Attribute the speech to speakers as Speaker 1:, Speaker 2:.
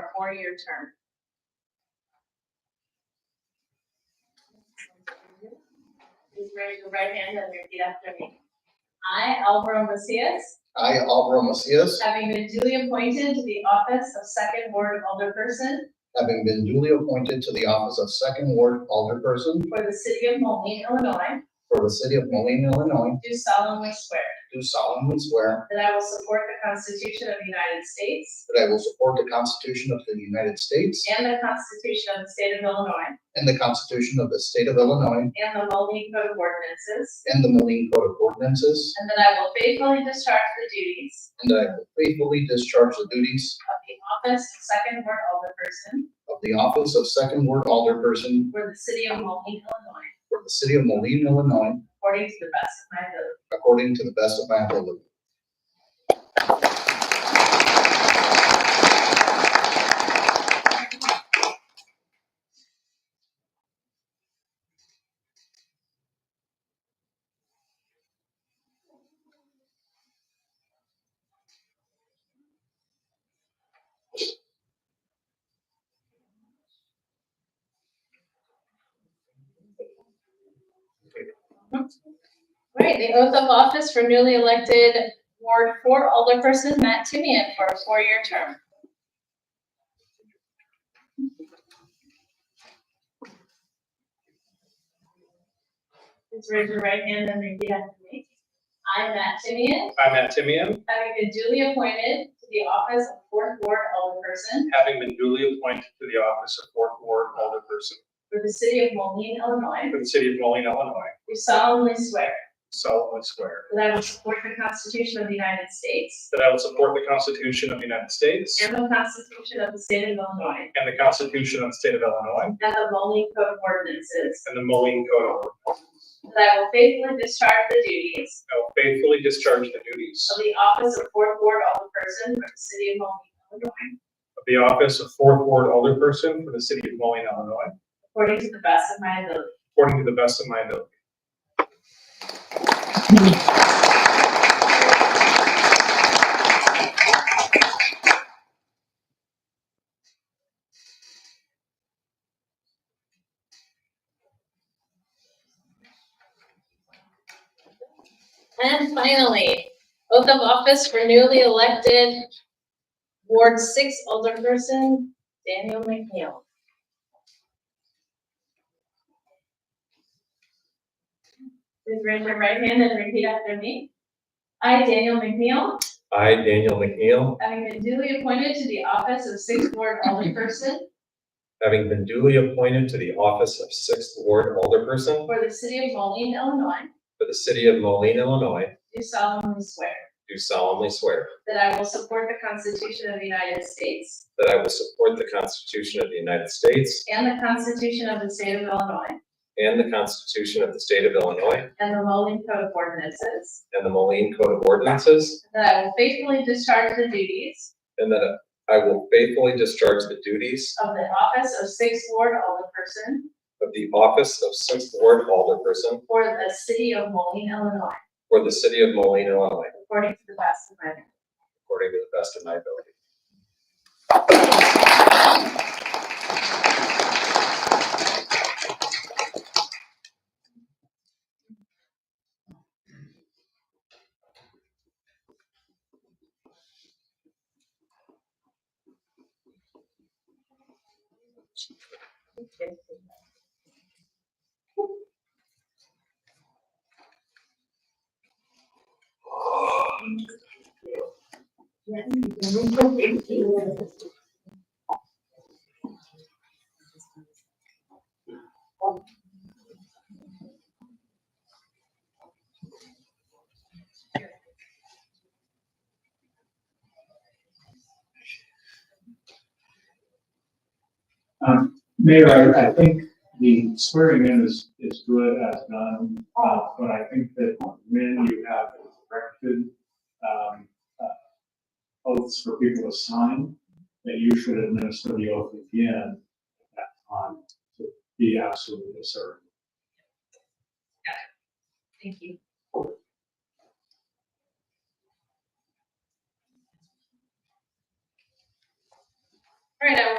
Speaker 1: a four-year term. Please raise your right hand and repeat after me. I, Alvaro Macias,
Speaker 2: I, Alvaro Macias,
Speaker 1: having been duly appointed to the office of Second Ward Alderperson
Speaker 2: having been duly appointed to the office of Second Ward Alderperson
Speaker 1: for the city of Moline, Illinois,
Speaker 2: for the city of Moline, Illinois,
Speaker 1: do solemnly swear
Speaker 2: do solemnly swear
Speaker 1: that I will support the Constitution of the United States
Speaker 2: that I will support the Constitution of the United States
Speaker 1: and the Constitution of the State of Illinois
Speaker 2: and the Constitution of the State of Illinois
Speaker 1: and the Moline Code of Ordinances,
Speaker 2: and the Moline Code of Ordinances,
Speaker 1: and that I will faithfully discharge the duties
Speaker 2: and that I will faithfully discharge the duties
Speaker 1: of the office of second ward alderperson
Speaker 2: of the office of Second Ward Alderperson
Speaker 1: for the city of Moline, Illinois,
Speaker 2: for the city of Moline, Illinois,
Speaker 1: according to the best of my ability.
Speaker 2: according to the best of my ability.
Speaker 1: All right, the oath of office for newly elected Ward Four alderperson Matt Timian for a four-year term. Please raise your right hand and repeat after me. I, Matt Timian,
Speaker 3: I, Matt Timian,
Speaker 1: having been duly appointed to the office of fourth ward alderperson
Speaker 3: having been duly appointed to the office of fourth ward alderperson
Speaker 1: for the city of Moline, Illinois,
Speaker 3: for the city of Moline, Illinois,
Speaker 1: do solemnly swear
Speaker 3: solemnly swear
Speaker 1: that I will support the Constitution of the United States
Speaker 3: that I will support the Constitution of the United States
Speaker 1: and the Constitution of the State of Illinois
Speaker 3: and the Constitution of the state of Illinois
Speaker 1: and the Moline Code of Ordinances,
Speaker 3: and the Moline Code of Ordinances.
Speaker 1: that I will faithfully discharge the duties
Speaker 3: I will faithfully discharge the duties
Speaker 1: of the office of fourth ward alderperson for the city of Moline, Illinois,
Speaker 3: of the office of fourth ward alderperson for the city of Moline, Illinois,
Speaker 1: according to the best of my ability.
Speaker 3: according to the best of my ability.
Speaker 1: And finally, oath of office for newly elected Ward Six alderperson Daniel McNeil. Please raise your right hand and repeat after me. I, Daniel McNeil,
Speaker 4: I, Daniel McNeil,
Speaker 1: having been duly appointed to the office of Sixth Ward Alderperson
Speaker 4: having been duly appointed to the office of Sixth Ward Alderperson
Speaker 1: for the city of Moline, Illinois,
Speaker 4: for the city of Moline, Illinois,
Speaker 1: do solemnly swear
Speaker 4: do solemnly swear
Speaker 1: that I will support the Constitution of the United States
Speaker 4: that I will support the Constitution of the United States
Speaker 1: and the Constitution of the State of Illinois
Speaker 4: and the Constitution of the State of Illinois
Speaker 1: and the Moline Code of Ordinances,
Speaker 4: and the Moline Code of Ordinances,
Speaker 1: that I will faithfully discharge the duties
Speaker 4: and that I will faithfully discharge the duties
Speaker 1: of the office of Sixth Ward Alderperson
Speaker 4: of the office of Sixth Ward Alderperson
Speaker 1: for the city of Moline, Illinois,
Speaker 4: for the city of Moline, Illinois,
Speaker 1: according to the best of my ability.
Speaker 4: according to the best of my ability.
Speaker 5: Um, Mayor, I, I think the swearing in is, is good as done, uh, but I think that when you have corrected, um, uh, oaths for people to sign, that you should administer the oath again at that time to be absolutely certain.
Speaker 1: Thank you. All right, I will